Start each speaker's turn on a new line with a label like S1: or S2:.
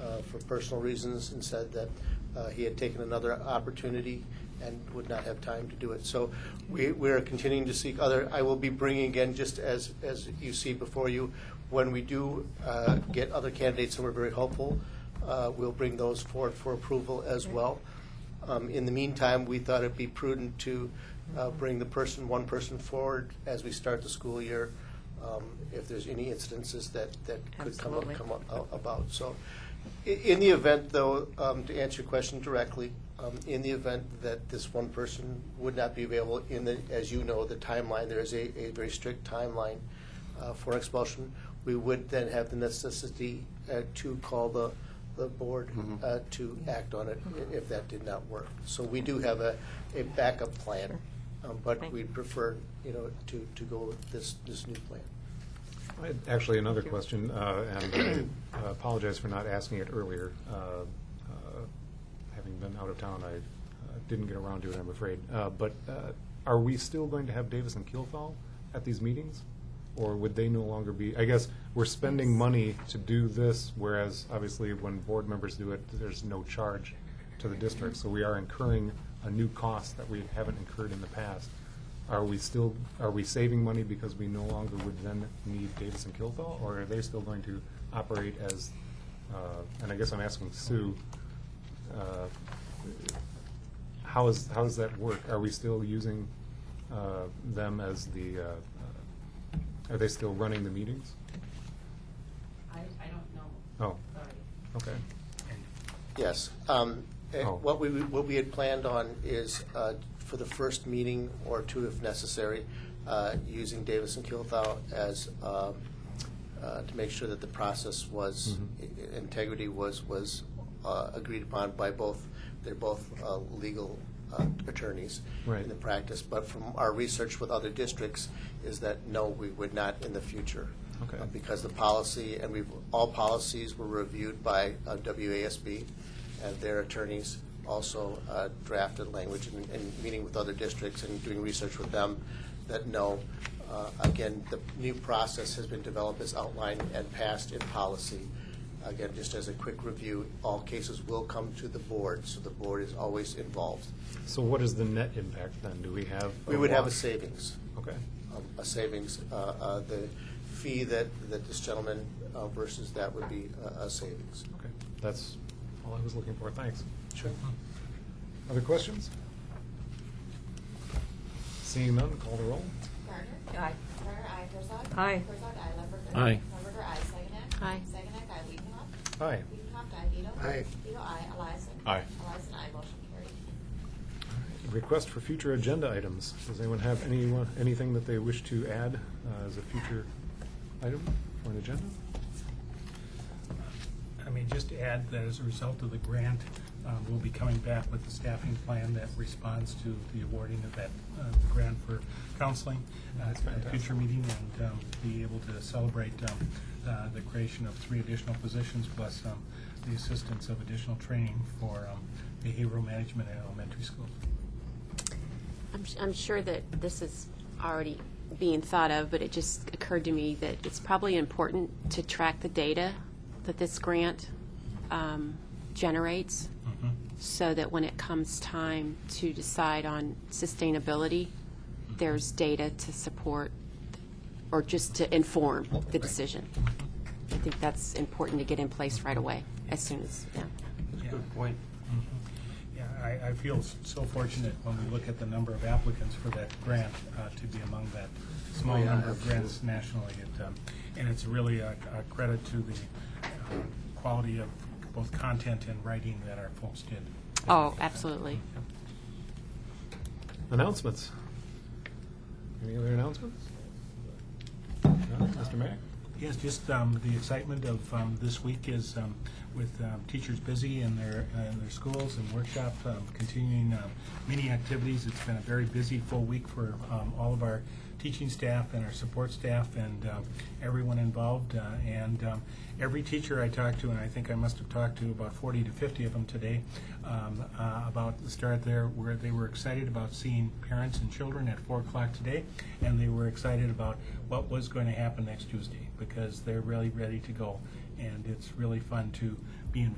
S1: uh, for personal reasons and said that uh, he had taken another opportunity and would not have time to do it. So we, we are continuing to seek other, I will be bringing again, just as, as you see before you, when we do uh, get other candidates, and we're very hopeful, uh, we'll bring those forward for approval as well. Um, In the meantime, we thought it'd be prudent to uh, bring the person, one person forward as we start the school year, um, if there's any instances that, that could come up,
S2: Absolutely.
S1: come up a- about. So i- in the event, though, um, to answer your question directly, um, in the event that this one person would not be available, in the, as you know, the timeline, there is a, a very strict timeline uh, for expulsion, we would then have the necessity uh, to call the, the board uh, to act on it i- if that did not work. So we do have a, a backup plan, um, but
S2: Thank
S1: we prefer, you know, to, to go with this, this new plan.
S3: I had Actually, another question, uh, and I apologize for not asking it earlier. Uh, uh, Having been out of town, I uh, didn't get around to it, I'm afraid. Uh, But uh, are we still going to have Davis and Kielfeld at these meetings? Or would they no longer be, I guess, we're spending money to do this, whereas obviously when board members do it, there's no charge to the district. So we are incurring a new cost that we haven't incurred in the past. Are we still, are we saving money because we no longer would then need Davis and Kilthall? Or are they still going to operate as, uh, and I guess I'm asking Sue, uh, how is, how does that work? Are we still using uh, them as the, uh, uh, are they still running the meetings?
S4: I, I don't know.
S3: Oh,
S4: Sorry.
S3: okay.
S1: Yes. Um, eh,
S3: Oh.
S1: What we, what we had planned on is uh, for the first meeting or two if necessary, uh, using Davis and Kilthau as, um, uh, to make sure that the process was,
S3: Mm-hmm.
S1: i- i- integrity was, was uh, agreed upon by both, they're both uh, legal uh, attorneys
S3: Right.
S1: in the practice. But from our research with other districts is that, no, we would not in the future.
S3: Okay.
S1: Uh, Because the policy, and we've, all policies were reviewed by uh, WASB, and their attorneys also uh, drafted language and, and meeting with other districts and doing research with them, that no, uh, again, the new process has been developed as outlined and passed in policy. Again, just as a quick review, all cases will come to the board, so the board is always involved.
S3: So what is the net impact then? Do we have?
S1: We would have a
S3: loss?
S1: savings
S3: Okay,
S1: um, a savings. uh, uh, The fee that, that this gentleman uh, versus that would be uh, a savings.
S3: okay. That's all I was looking for. Thanks.
S1: Sure.
S3: Other questions? Seeing none, call the roll.
S5: Gardner.
S2: Aye.
S5: Gardner, aye. Herzog.
S2: Aye.
S5: Herzog, aye. Lumberger.
S6: Aye.
S5: Lumberger, aye. Saginac.
S2: Aye.
S5: Saginac, aye. Wiedenhoff.
S3: Aye.
S5: Wiedenhoff, aye. Vito.
S1: Aye.
S5: Vito, aye. Eliason.
S3: Aye.
S5: Eliason, aye. Motion carried.
S3: Request for future agenda items. Does anyone have anyone, anything that they wish to add uh, as a future item for an agenda?
S6: I mean, just to add that as a result of the grant, uh, we'll be coming back with a staffing plan that responds to the awarding of that, uh, the grant for counseling. uh,
S3: That's
S6: At a future meeting and um, be able to celebrate um, uh, the creation of three additional positions plus um, the assistance of additional training for um, behavioral management in elementary schools.
S7: I'm, s- I'm sure that this is already being thought of, but it just occurred to me that it's probably important to track the data that this grant um, generates
S6: Mm-hmm.
S7: so that when it comes time to decide on sustainability, there's data to support or just to inform the decision. I think that's important to get in place right away, as soon as, yeah.
S6: Good point. Mm-hmm. Yeah, I, I feel s- so fortunate when we look at the number of applicants for that grant, uh, to be among that small number of grants nationally. It, um, And it's really a a credit to the uh, quality of both content and writing that our folks did.
S7: Oh, absolutely.
S3: Announcements. Any other announcements? No? Mr. Mack?
S6: Yes, just um, the excitement of um, this week is um, with um, teachers busy in their, uh, in their schools and workshop, um, continuing um, many activities. It's been a very busy, full week for um, all of our teaching staff and our support staff and um, everyone involved. uh, And um, every teacher I talked to, and I think I must have talked to about 40 to 50 of them today, um, uh, about the start there, where they were excited about seeing parents and children at 4 o'clock today, and they were excited about what was going to happen next Tuesday because they're really ready to go. And it's really fun to be involved